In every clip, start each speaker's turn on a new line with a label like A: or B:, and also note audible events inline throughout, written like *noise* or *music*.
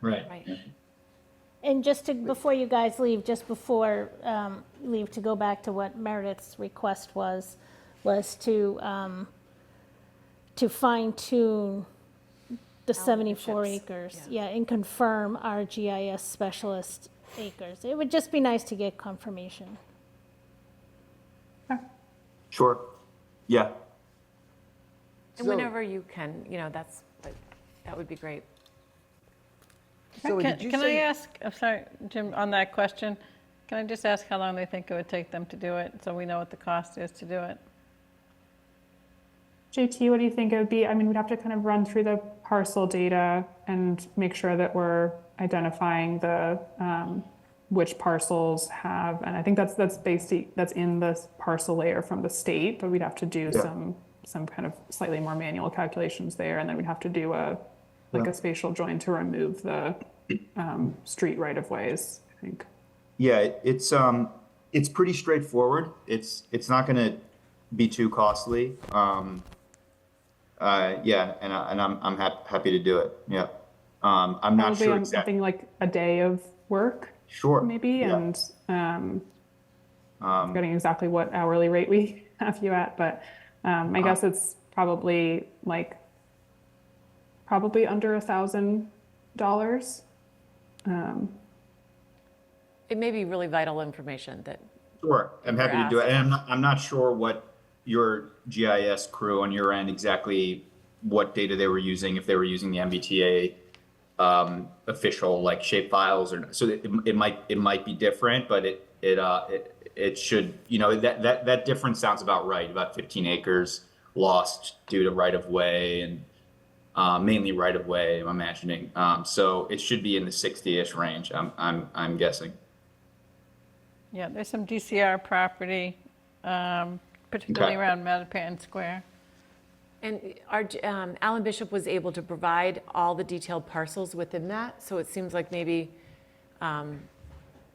A: Right.
B: Right.
C: And just to, before you guys leave, just before um, you leave, to go back to what Meredith's request was, was to, um, to fine tune the 74
B: chips,
C: acres. Yeah, and confirm our GIS specialist acres. It would just be nice to get confirmation.
D: Sure. Yeah.
B: And whenever you can, you know, that's, like, that would be great.
E: Zoe,
F: Can
E: did you
F: can I
E: say?
F: ask, I'm sorry, Jim, on that question, can I just ask how long they think it would take them to do it, so we know what the cost is to do it?
G: JT, what do you think it would be? I mean, we'd have to kind of run through the parcel data and make sure that we're identifying the, um, which parcels have, and I think that's, that's based, that's in this parcel layer from the state, but we'd have to do
D: Yeah.
G: some, some kind of slightly more manual calculations there, and then we'd have to do a, like
D: Yeah.
G: a spatial join to remove the, um, street right of ways, I think.
D: Yeah, it- it's, um, it's pretty straightforward. It's, it's not gonna be too costly. Um, uh, yeah, and I, and I'm, I'm hap- happy to do it. Yeah. Um, I'm not
G: Probably
D: sure
G: on something
D: exactly.
G: like a day of work,
D: Sure.
G: maybe,
D: Yeah.
G: and, um,
D: Um,
G: forgetting exactly what hourly rate we *laughs* have you at, but um, I
D: Uh,
G: guess it's probably like probably under a thousand dollars.
B: It may be really vital information that,
D: Sure, I'm happy to do it.
B: Grass.
D: And I'm not, I'm not sure what your GIS crew on your end exactly what data they were using, if they were using the MBTA um, official like shapefiles or, so it, it might, it might be different, but it, it, uh, it, it should, you know, that, that, that difference sounds about right, about 15 acres lost due to right of way and uh, mainly right of way, I'm imagining. Um, So it should be in the 60-ish range, I'm, I'm, I'm guessing.
F: Yeah, there's some DCR property, um, particularly
D: Okay.
F: around Mattapan Square.
B: and our, um, Alan Bishop was able to provide all the detailed parcels within that, so it seems like maybe um,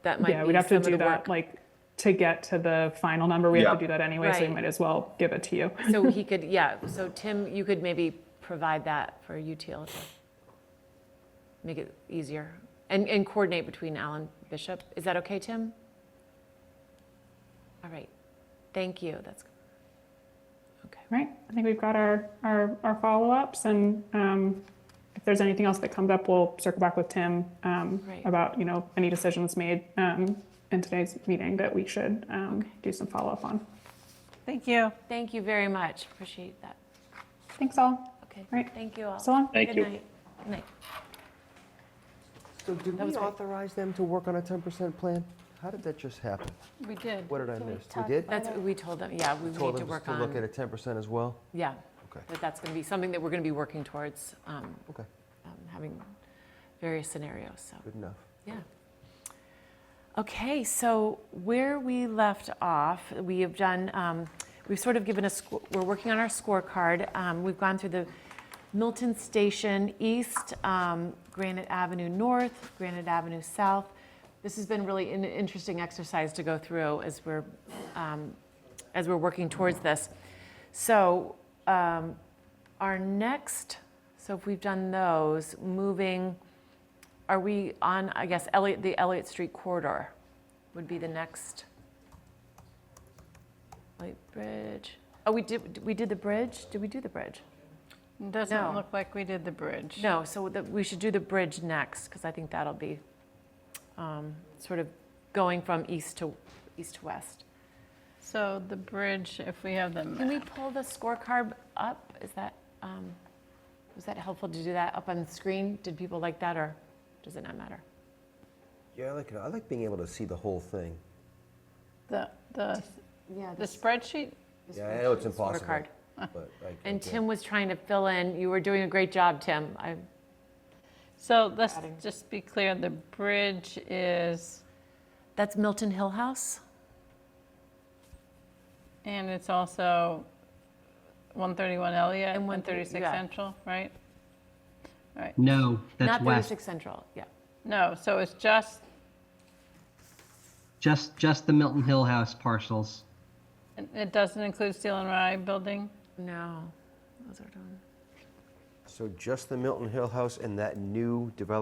B: that might
G: Yeah,
B: be
G: we'd have
B: some
G: to
B: of
G: do
B: the
G: that
B: work.
G: like to get to the final number. We
D: Yeah.
G: have to do that anyway, so we
B: Right.
G: might as well give it to you.
B: So he could, yeah, so Tim, you could maybe provide that for UTL to make it easier and, and coordinate between Alan Bishop. Is that okay, Tim? All right, thank you, that's, okay.
G: Right. I think we've got our our, our follow ups, and um, if there's anything else that comes up, we'll circle back with Tim um,
B: Right.
G: about you know any decisions made um, in today's meeting that we should um, do some follow up on.
F: Thank you.
B: Thank you very much, appreciate that.
G: Thanks all.
B: Okay,
G: Right.
B: thank you all.
G: So long.
B: Thank you. Good night, good night.
E: So did we
B: was great.
E: authorize them to work on a 10% plan? How did that just happen?
F: We did.
E: What did I
C: Can we
E: miss? We
C: talk
E: did?
B: That's, what we told them, yeah, we
E: Told
B: need to
E: them
B: work
E: to look at a
B: on,
E: 10% as well?
B: yeah,
E: Okay,
B: that that's going to be something that we're going to be working towards, um,
E: okay,
B: um, having various scenarios, so.
E: good enough.
B: Yeah. Okay, so where we left off, we have done, um, we've sort of given a, sco- we're working on our scorecard. Um, We've gone through the Milton Station East, um, Granite Avenue North, Granite Avenue South. This has been really an interesting exercise to go through as we're, um, as we're working towards this. So um, our next, so if we've done those, moving. Are we on, I guess, Elliott, the Elliott Street corridor would be the next? Light Bridge. Oh, we did, we did the bridge? Did we do the bridge? No.
F: Doesn't look like we did the bridge.
B: No, so the- we should do the bridge next, because I think that'll be um, sort of going from east to, east to west.
F: So the bridge, if we have them,
B: Can we pull the scorecard up? Is that, um, was that helpful to do that up on the screen? Did people like that, or does it not matter?
E: Yeah, I like, it. I like being able to see the whole thing.
F: the, the
B: Yeah.
F: the spreadsheet?
E: Yeah, I know it's impossible.
B: Scorecard.
E: but I-
B: And
E: okay.
B: Tim was trying to fill in. You were doing a great job, Tim. I,
F: So let's just be clear, the bridge is,
B: that's Milton Hill House?
F: and it's also 131 Elliott
B: And
F: and
B: 136
F: 136
B: yeah.
F: Central, right?
A: No, that's
B: Not
A: west.
B: 36 Central, yeah.
F: No, so it's just,
A: Just, just the Milton Hill House parcels.
F: it- it doesn't include Steel and Rye building?
B: No, those are done.
E: So just the Milton Hill House and that new development